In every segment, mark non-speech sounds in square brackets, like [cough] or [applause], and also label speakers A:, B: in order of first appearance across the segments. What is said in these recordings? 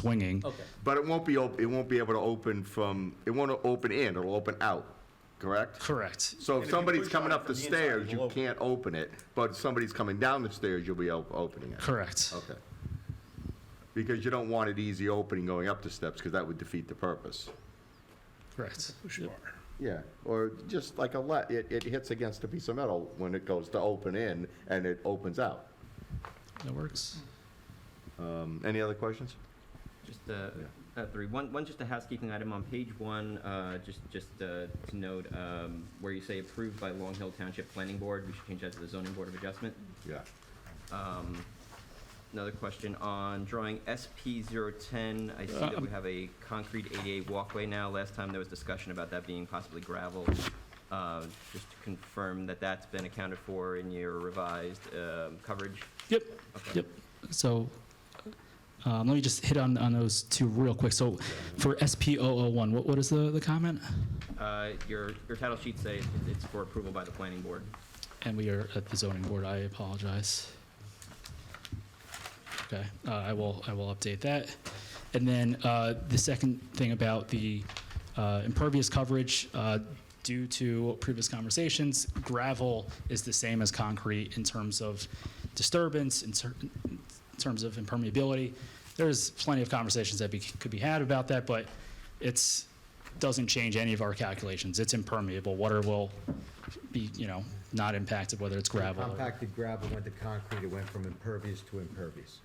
A: swinging.
B: Okay.
C: But it won't be, op- it won't be able to open from, it won't open in, it'll open out, correct?
A: Correct.
C: So
B: And
C: if
B: if you
C: somebody's
B: push
C: coming
B: on it
C: up
B: from
C: the
B: the inside,
C: stairs,
B: it'll
C: you
B: open.
C: can't open it, but if somebody's coming down the stairs, you'll be op- opening it.
A: Correct.
C: Okay. Because you don't want it easy opening going up the steps, because that would defeat the purpose.
A: Correct.
C: Yeah, or just like a let, it, it hits against a piece of metal when it goes to open in, and it opens out.
A: That works.
C: Um, Any other questions?
D: Just uh, uh, three. One, one, just a housekeeping item on page one. Uh, just, just uh, to note um, where you say approved by Long Hill Township Planning Board. We should change that to the Zoning Board of Adjustment.
C: Yeah.
D: Um, another question on drawing SP 010. I see that we have a concrete ADA walkway now. Last time there was discussion about that being possibly gravel. Uh, just to confirm that that's been accounted for in your revised um, coverage.
A: Yep,
D: Okay.
A: yep. So um, let me just hit on, on those two real quick. So for SP oh one what, what is the, the comment?
D: Uh, your your title sheet say it's for approval by the planning board.
A: And we are at the zoning board, I apologize. Okay, uh, I will, I will update that. And then uh, the second thing about the uh, impervious coverage, uh, due to previous conversations, gravel is the same as concrete in terms of disturbance, in cer- in terms of impermeability. There's plenty of conversations that be- could be had about that, but it's, doesn't change any of our calculations. It's impermeable. Water will be, you know, not impacted whether it's gravel. or-
E: Compacted gravel went to concrete, it went from impervious to impervious.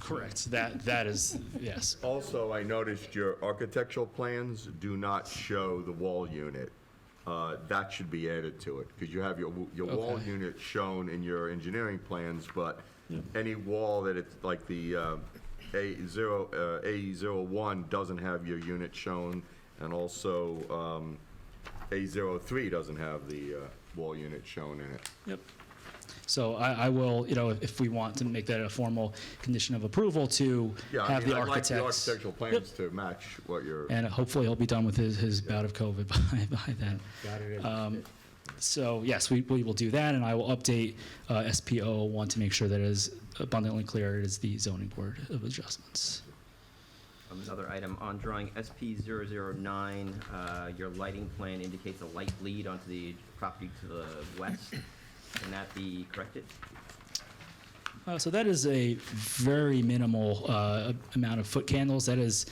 A: Correct. That, that is, yes.
C: Also, I noticed your architectural plans do not show the wall unit. Uh, That should be added to it, because you have your, w- your wall
A: Okay.
C: unit shown in your engineering plans, but any wall that it's, like the uh, A zero, uh, A zero one doesn't have your unit shown, and also um, A zero three doesn't have the uh, wall unit shown in it.
A: Yep. So I, I will, you know, if we want to make that a formal condition of approval to
C: Yeah, I
A: have
C: mean,
A: the
C: I'd like the
A: architect.
C: architectural plans to match what you're.
A: And hopefully he'll be done with his, his bout of COVID [laughs] by, by then.
E: Got it?
A: Um, So yes, we, we will do that and I will update uh, SPO one to make sure that it is abundantly clear it is the zoning board of adjustments.
D: Um, Another item on drawing SP 009, uh, your lighting plan indicates a light lead onto the property to the west. Can that be corrected?
A: Uh, so that is a very minimal uh, amount of foot candles. That is,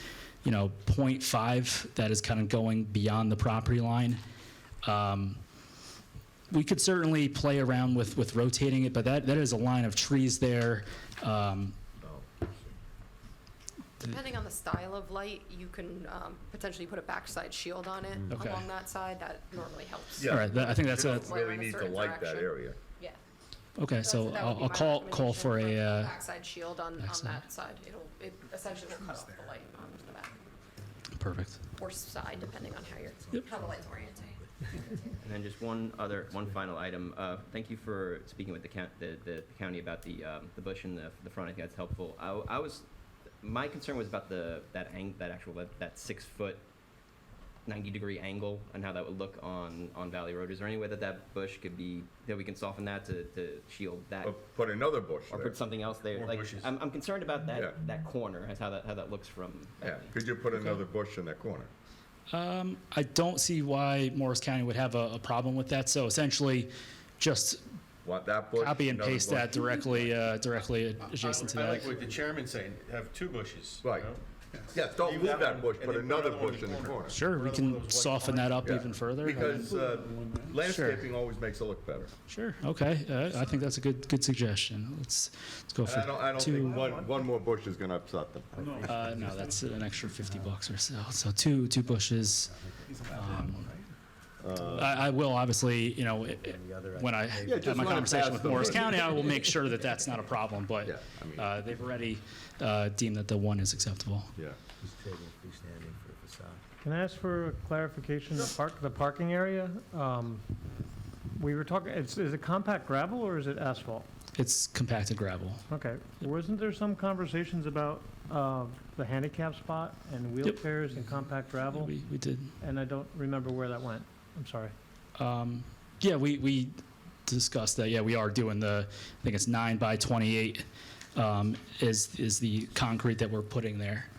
A: you know, 0.5. That is kind of going beyond the property line. Um, we could certainly play around with with rotating it, but that that is a line of trees there. Um,
F: Depending on the style of light, you can um, potentially put a backside shield on it
A: Okay.
F: along that side. That normally helps.
C: Yeah.
A: All right, that, I think that's a,
F: Flare in a certain direction. Yeah.
A: okay.
F: That's-
A: So
F: that would
A: I'll,
F: be
A: I'll
F: my
A: call call
F: recommendation,
A: for
F: put
A: a. Uh,
F: Backside shield on, on
A: backside.
F: that side. It'll, it essentially will cut off the light on the back
A: perfect.
F: or side, depending on how you're,
A: Yep.
F: how the light's oriented.
D: And then just one other, one final item. Uh, Thank you for speaking with the coun- the the county about the um, the bush in the the front. I think that's helpful. I w- I was, my concern was about the, that ang, that actual, that- that six-foot, 90-degree angle and how that would look on on Valley Road. Is there any way that that bush could be, that we can soften that to to shield that?
C: Or Put another bush
D: or
C: there.
D: put something else there.
C: More
D: like
C: bushes.
D: I'm, I'm concerned about that
C: Yeah.
D: that corner as how that how that looks from.
C: Yeah, could you put another bush in that corner?
A: Um, I don't see why Morris County would have a, a problem with that. So essentially, just
C: Want that bush?
A: copy and
C: another
A: paste
C: bush?
A: that directly uh, directly adjacent to
G: I- I
A: that.
G: like what the chairman's saying, have two bushes. you
C: Right.
G: know?
C: Yes, don't
G: Leave
C: move that
G: one
C: bush,
G: and
C: put
G: then
C: another bush in the corner.
A: Sure, we
G: Another one of
A: can
G: those white
A: soften that up
C: Yeah.
A: even further. and then-
C: Because uh, landscaping always makes it look better.
A: Sure, okay, uh, I think that's a good, good suggestion. Let's, let's go
C: And I don't, I
A: for
C: don't
A: two.
C: think one, one more bush is gonna upset them.
A: Uh, no, that's an extra fifty bucks or so, so two, two bushes. um, I, I will obviously, you know, i- i- when I
C: Yeah, just
A: have my
C: run it
A: conversation
C: past
A: with
C: them.
A: Morris County, I will make sure that that's not a problem, but
C: Yeah, I mean-
A: uh, they've already uh, deemed that the one is acceptable.
C: Yeah.
E: He's trading freestanding for a facade.
H: Can I ask for clarification, the park, the parking area? Um, We were talking, it's, is it compact gravel or is it asphalt?
A: It's compacted gravel.
H: Okay, wasn't there some conversations about uh, the handicap spot and wheelchairs and compact gravel?
A: We, we did.
H: And I don't remember where that went, I'm sorry.
A: Um, yeah, we, we discussed that. Yeah, we are doing the, I think it's nine by 28 um, is, is the concrete that we're putting there.